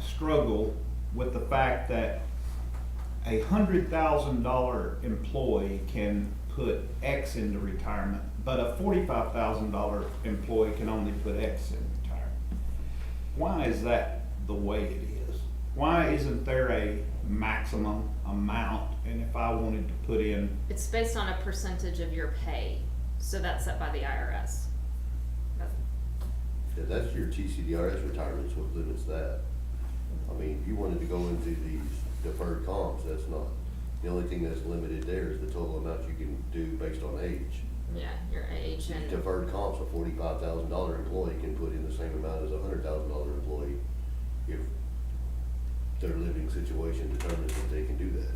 struggle with the fact that a hundred thousand dollar employee can put X into retirement, but a forty-five thousand dollar employee can only put X in retirement. Why is that the way it is? Why isn't there a maximum amount? And if I wanted to put in, It's based on a percentage of your pay, so that's set by the IRS. That's- Yeah, that's your TCDRS retirement, so what limits that. I mean, if you wanted to go into these deferred comps, that's not, the only thing that's limited there is the total amount you can do based on age. Yeah, your age and, Deferred comps, a forty-five thousand dollar employee can put in the same amount as a hundred thousand dollar employee if their living situation determines that they can do that.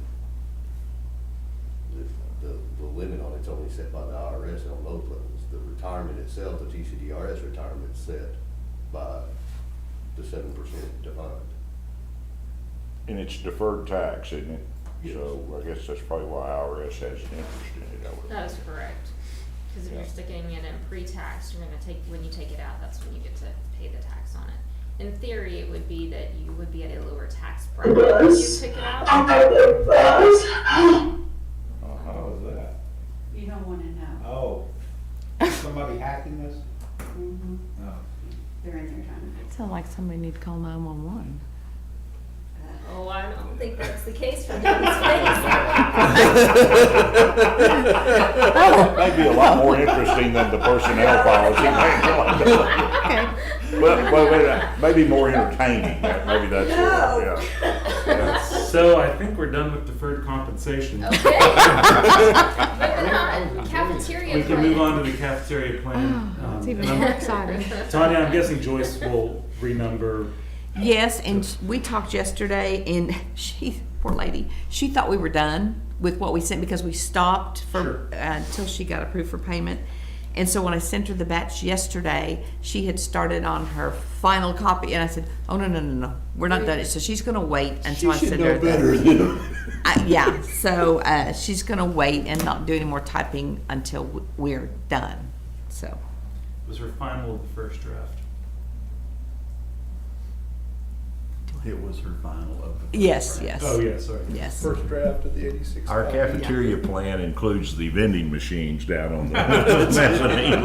The, the, the limit on it's only set by the IRS on those levels. The retirement itself, the TCDRS retirement's set by the seven percent defined. And it's deferred tax, isn't it? Yes. So I guess that's probably why IRS has an interest in it, I would. that is correct. Cause if you're Yeah. sticking it in pre-tax, you're gonna take, when you take it out, that's when you get to pay the tax on it. In theory, it would be that you would be at a lower tax bracket when you took it out. Uh-huh. how is that? You don't wanna know. Oh, is somebody hacking this? Mhm. No. They're in there trying to fix Sound like somebody need to call nine-one-one. that. Oh, I don't think that's the case for this case. That'd be a lot more interesting than the personnel policy. Okay. Well, well, wait, a minute. maybe more entertaining, that- maybe that's, what, yeah. So I think we're done with deferred compensation. Okay. Moving on, cafeteria. We can move on to the cafeteria plan. Oh, it's Um, even num- more exciting. Tanya, I'm guessing Joyce will renumber. Yes, and sh- we talked yesterday, and she, poor lady, she thought we were done with what we sent because we stopped for, uh, until she got approved for payment. And so when I sent her the batch yesterday, she had started on her final copy, and I said, "Oh no, no, no, no, we're not done." So she's gonna wait until I send her. the- I- yeah, so uh, she's gonna wait and not do any more typing until w- we're done. So Was her final of the first draft. It was her final of the. yes, yes, Oh yeah, sorry. yes. First draft of the eighty-six. Our cafeteria plan includes the vending machines down on the mezzanine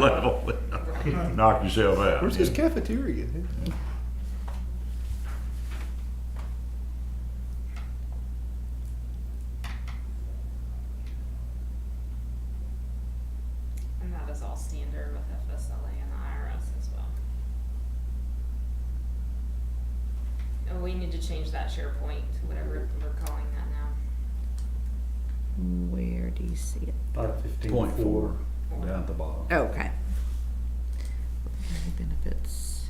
level. Knock yourself out. Where's this cafeteria? And that is all standard with FSLA and the IRS as well. And we need to change that SharePoint to whatever we're calling that now. Where do you see it? Five fifteen Point four, four. down at the bottom. Okay. Employee Benefits.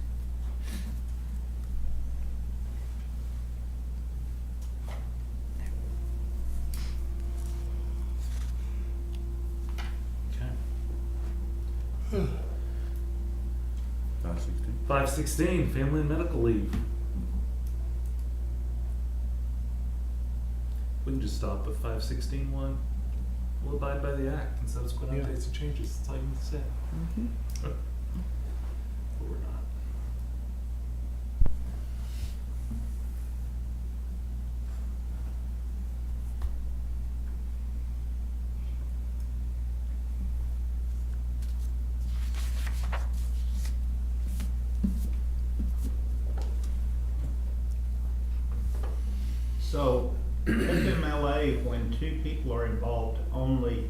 Okay. Five sixteen. Five sixteen, family and medical leave. We can just stop with five sixteen one. We'll abide by the act and subsequent Yeah. updates and changes. That's all you need to say. Mm-hmm. Mhm. But we're not. So, FMLA, when two people are involved, only,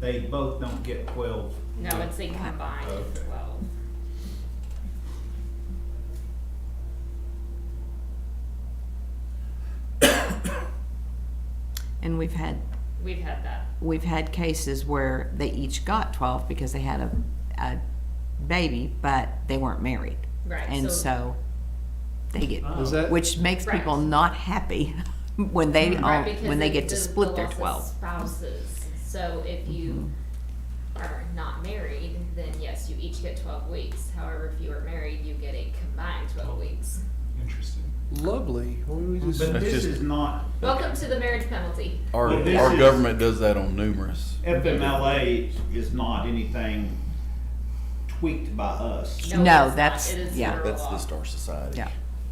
they both don't get twelve. No, it's a combined Okay. twelve. And we've had, We've had that. we've had cases where they each got twelve because they had a, a baby, but they weren't married. Right, And so- so they get, Ah. Is that? which makes Right. people not happy when they, Right, own- because Oh, when they of get to the- the split their loss of twelve. Mm-hmm. Spouses, so if you are not married, then yes, you each get twelve weeks. However, if you are married, you get a combined Oh. twelve weeks. Ah, Interesting. Lovely. What do we just- But That's this just- is not, Welcome to the marriage penalty. Our, Well, this our is- government does that on numerous. FMLA is not anything tweaked by us. No, it is not. that's- It is yeah. federal That's law. the Star Society. Yeah.